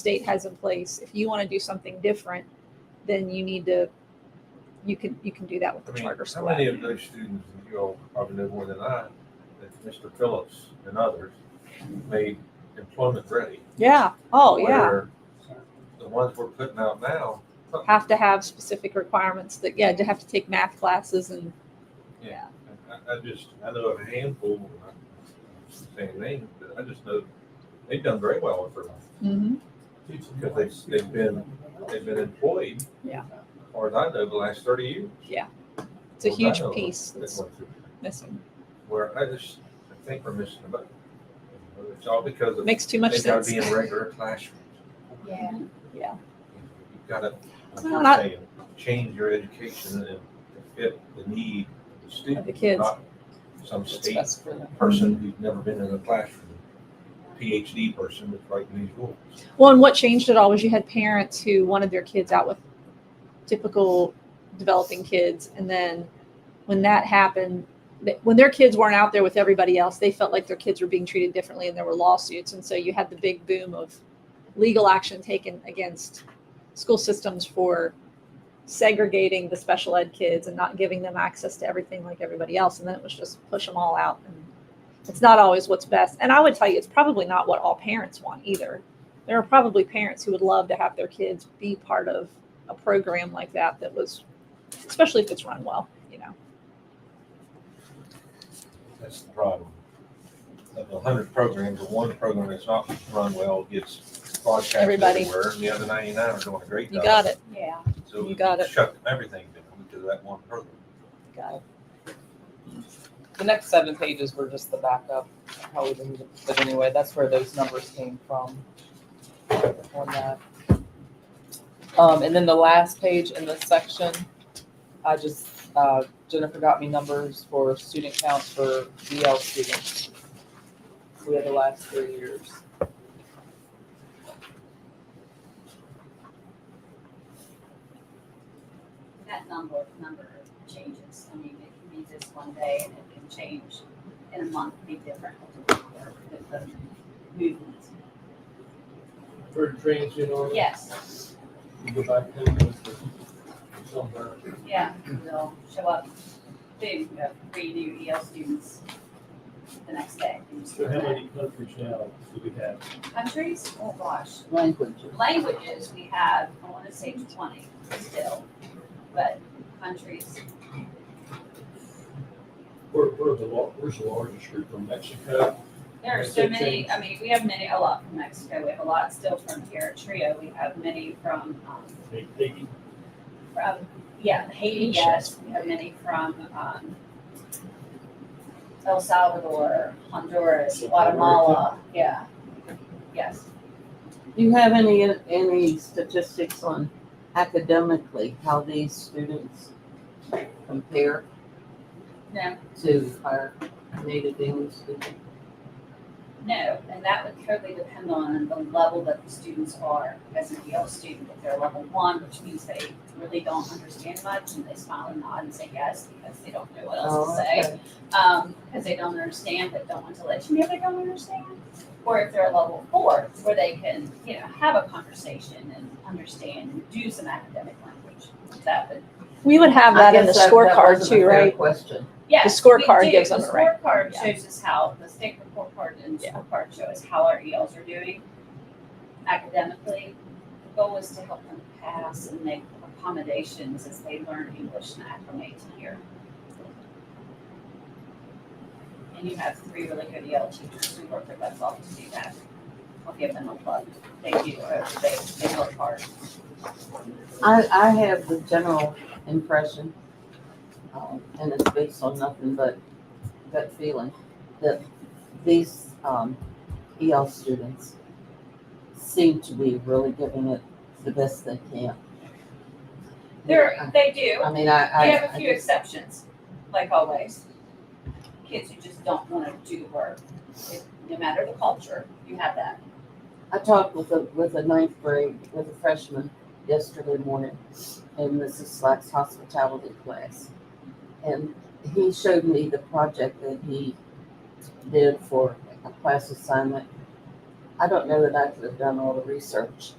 state has in place, if you want to do something different, then you need to, you can, you can do that with I the mean, charter how many school. of those students, you all probably know more than I, that Mr. Phillips and others made employment ready? Yeah, oh, yeah, where The ones we're putting out now, have to have specific requirements that, yeah, to have to take math classes and, yeah, I, I just, I know of a handful, I'm not saying names, but I just know they've done very well with their life. Because they, they've been, They've been employed. Yeah. As far as I know, the last thirty years. Yeah. it's a As far as I huge know, piece they've that's went through. missing. Where I just, I think we're missing about, it's all because of. Makes too much They gotta sense. be in regular classrooms. Yeah. Yeah. You've gotta, like No, you're not- saying, change your education and fit the need of the student. the kids. Mm-hmm. not Some It's state best for them. person who's never been in a classroom, PhD person that's writing these rules. Well, and what changed it all was you had parents who wanted their kids out with typical developing kids, and then when that happened, th- when their kids weren't out there with everybody else, they felt like their kids were being treated differently, and there were lawsuits, and so you had the big boom of legal action taken against school systems for segregating the special ed kids and not giving them access to everything like everybody else, and then it was just push them all out. And it's not always what's best, and I would tell you, it's probably not what all parents want either there are probably parents who would love to have their kids be part of a program like that that was especially if it's run well you know That's the problem. Of the hundred programs, the one program that's not run well gets broadcast Everybody. everywhere, and the other ninety-nine are doing a great you job. got it Yeah. So you got it. Shut everything down because of that one program. got it The next seven pages were just the backup, how we did it, but anyway, that's where those numbers came from. On that. Um, and then the last page in this section, I just, uh, Jennifer got me numbers for student counts for BL students. We had the last three years. That number, number changes, I mean, it can be just one day and it can change in a month, be different. with the Movement, for transient on it, yes, you go back to it with the- somewhere. yeah, they'll show up, boom, you have three new EL students the next day. So how many countries now do we have? Countries, oh gosh, languages. languages, we have, I wanna say twenty still, but countries, We're, we're the lar, where's the largest group from Mexico? There are so many, I mean, we have many, a lot from Mexico, we have a lot still from here, Trio, we have many from, um, They, they, from, yeah, Haiti, yes, we have many from, um, El Salvador, Honduras, Guatemala, yeah, yes. Do you have any, any statistics on academically how these students compare No, to our native English students? no, and that would totally depend on the level that the students are as an EL student. If they're level one, which means they really don't understand much and they smile and nod and say yes because they don't know what else to Oh, say. okay. um, because they don't understand, but don't want to let you know they don't understand. Or if they're a level four, where they can, you know, have a conversation and understand and do some academic language. That would, we would have that I in the guess that- that scorecard wasn't a too fair right Question. yeah. scorecard gives them The it, right? scorecard Yeah. shows us how, the state report card and Yeah. scorecard show us how our ELs are doing academically. The goal is to help them pass and make accommodations as they learn English and acclimate here. And you have three really good EL teachers who work their butts off to do that. I'll give them a plug. They do, uh, they, they work hard. I, I have the general impression, um, and it's based on nothing but gut feeling, that these, um, EL students seem to be really giving it the best they can. They're, they do. I mean, I, I. We have a I few just- exceptions, like always. Kids who just don't wanna do work, it- no matter the culture, you have that. I talked with a, with a ninth grade, with a freshman yesterday morning in Mrs. Slack's hospitality class. And he showed me the project that he did for a class assignment I don't know that I could have done all the research.